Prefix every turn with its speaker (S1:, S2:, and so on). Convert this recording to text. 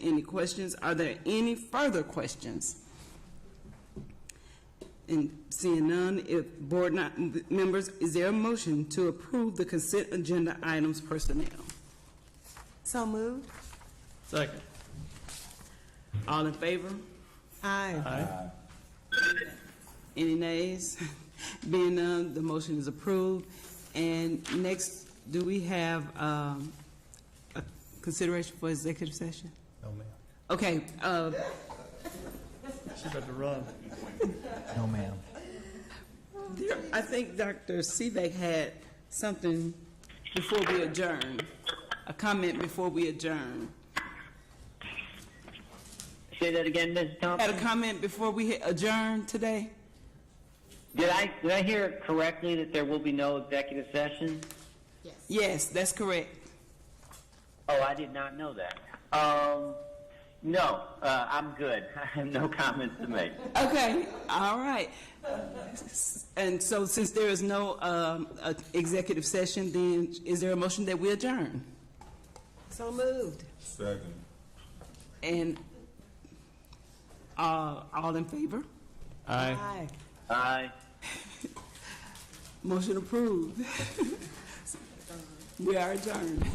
S1: any questions. Are there any further questions? And seeing none, if board not, members, is there a motion to approve the consent agenda items personnel?
S2: So moved.
S3: Second.
S1: All in favor?
S2: Aye.
S1: Any nays? Being none, the motion is approved. And next, do we have um, a consideration for executive session?
S3: No, ma'am.
S1: Okay, uh,
S3: She about to run.
S4: No, ma'am.
S1: there- I think Dr. Sivak had something before we adjourn, a comment before we adjourn.
S5: Say that again, Ms.
S1: Had a
S5: Thompson.
S1: comment before we adjourn today?
S5: Did I, did I hear correctly that there will be no executive session?
S1: Yes, that's correct.
S5: Oh, I did not know that. Um, no, uh, I'm good. I have no comments to make.
S1: Okay, all right. And so since there is no um, uh, executive session, then is there a motion that we adjourn?
S2: So moved.
S6: Second.
S1: And uh, all in favor?
S3: Aye.
S2: Aye.
S5: Aye.
S1: Motion approved. We are adjourned.